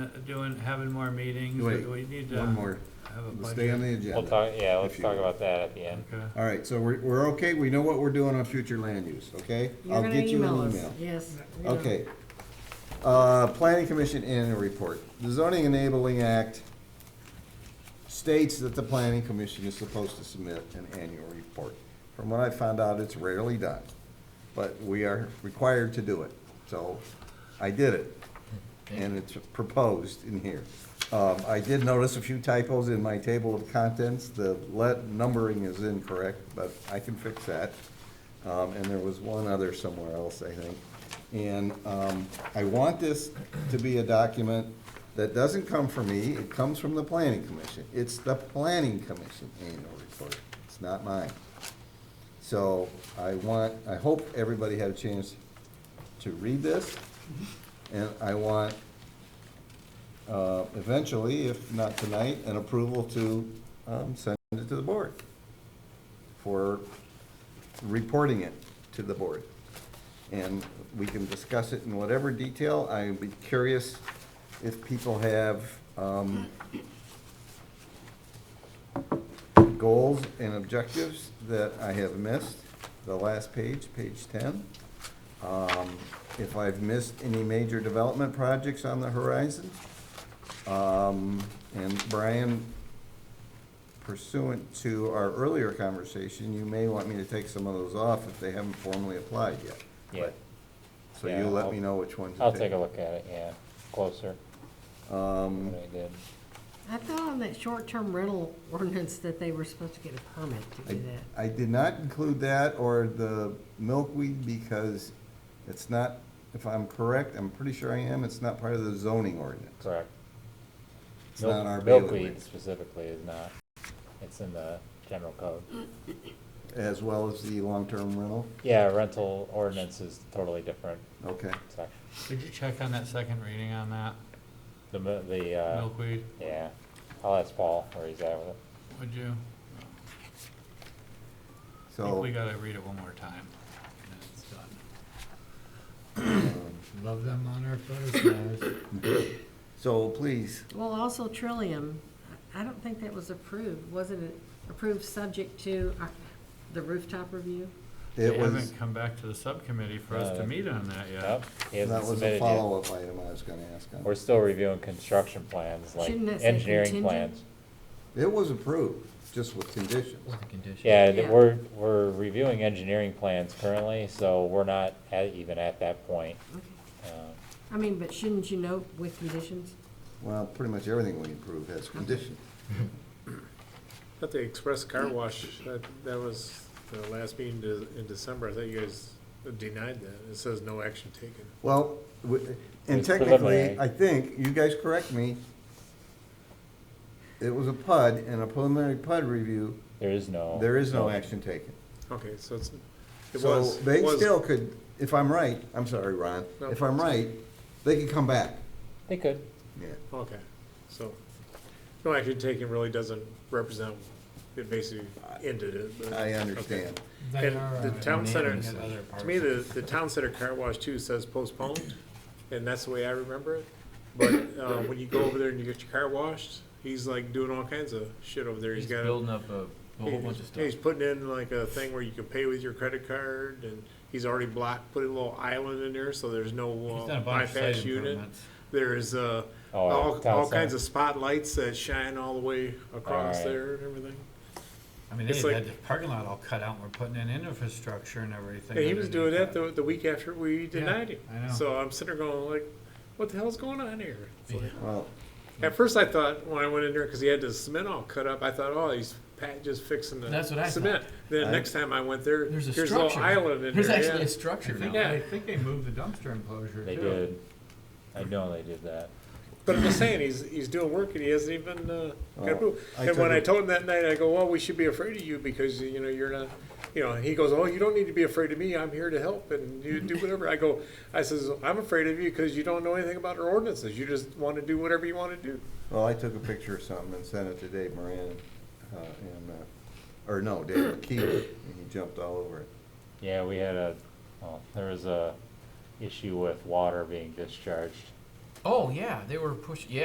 doing, having more meetings, or Wait, do we need to One more, have a budget? Let's stay on the We'll agenda. talk, yeah, let's if you talk will. about that at the end. Okay. All right, so we're, we're okay, we know what we're doing on future land use, okay? You're I'll gonna get you an us. email. Yes. we know. Okay. Uh, Planning Commission annual report. The zoning enabling act states that the planning commission is supposed to submit an annual report. From what I found out, it's rarely done, but we are required to do it. So I did it, and it's proposed in here. Um, I did notice a few typos in my table of contents. The let, numbering is incorrect, but I can fix that. Um, and there was one other somewhere else, I think. And, um, I want this to be a document that doesn't come from me, it comes from the planning commission. It's the planning commission annual report, it's not mine. So I want, I hope everybody had a chance to read this. And I want, uh, eventually, if not tonight, an approval to, um, send it to the board for reporting it to the board. And we can discuss it in whatever detail. I'd be curious if people have um, goals and objectives that I have missed, the last page, page 10. Um, If I've missed any major development projects on the horizon. Um, And Brian, pursuant to our earlier conversation, you may want me to take some of those off if they haven't formally applied yet. Yeah, So Yeah, you let I'll- me know which ones to I'll take a look at it, yeah, closer Um, than I did. I thought on that short-term rental ordinance that they were supposed to get a permit to I, do that. I did not include that or the milkweed because it's not, if I'm correct, I'm pretty sure I am, it's not part of the zoning ordinance. Correct. It's not Milk- our bailiwick, Milkweed specifically is not, it's in the general code. as well as the long-term rental, Yeah, rental ordinance is totally different okay. section. Could you check on that second reading on that The, mi- the, uh, milkweed, yeah, I'll ask Paul where he's at with it. would you? I think So, we gotta read it one more time, and then it's done. um, Love them on our photos, so please, Well, also Trillium, I don't think that was approved, wasn't it approved subject to our- the rooftop review? it They was, haven't come back to the subcommittee for us to No. meet on that yet. Nope, he that hasn't was a submitted yet. follow-up item I was gonna ask We're on. still reviewing construction plans, like Shouldn't it say engineering contingent? plans. It was approved, just with conditions. with the condition. Yeah, th- Yeah. we're, we're reviewing engineering plans currently, so we're not at, even at that point. Okay. Um, I mean, but shouldn't you know with conditions? Well, pretty much everything we approve has conditions. At the express car wash, that, that was the last meeting de- in December, I thought you guys denied that, it says no action taken. Well, w- and It's technically, preliminary. I think, you guys correct me, it was a PUD, and a preliminary PUD review, There is Oh, no. there is no action taken. Okay, so it's, it So was, they it was- still could, if I'm right, I'm sorry, Ron, No. if I'm right, they could come back. They could. Yeah. Okay, so, no action taken really doesn't represent, it basically ended it. but- I okay. understand. They And are, the uh, town center, unanimous in other to me, parts. the, the town center car wash too says postponed, and that's the way I remember it. But, uh, when you go over there and you get your car washed, he's like doing all kinds of shit over there, he's He's got. building up a a whole bunch of He's- stuff. He's putting in like a thing where you can pay with your credit card, and he's already blocked, put a little island in there, so there's no He's done a bunch uh, of bypass site unit. improvements. There is, uh, Oh, at all, town all kinds center. of spotlights that shine all the way across Alright. there and everything. I mean, it's they had like- the parking lot all cut out, and we're putting in infrastructure and everything. And he was doing that underneath the, the week after we denied him. I know. So I'm sitting there going like, what the hell's going on here? It's like- Well, At first I thought, when I went in there, cause he had the cement all cut up, I thought, oh, he's pat- just fixing the That's what I thought. cement. I- Then next time I went there, There's a here's structure. a little island in There's there, actually yeah. a structure I think, now. Yeah. I think they moved the dumpster enclosure too. They did. I know they did that. But I'm just saying, he's, he's doing work and he hasn't even, uh, got Well, approved. I And when took I it- told him that night, I go, well, we should be afraid of you because, you know, you're not, you know, he goes, oh, you don't need to be afraid of me. I'm here to help and you do whatever. I go, I says, I'm afraid of you because you don't know anything about our ordinances. You just want to do whatever you want to do. well, I took a picture of something and sent it to Dave Moran, uh, and, uh, or no, David Keeler, and he jumped all over it. Yeah, we had a, well, there was a issue with water being discharged Oh, yeah, they were pushing, yeah,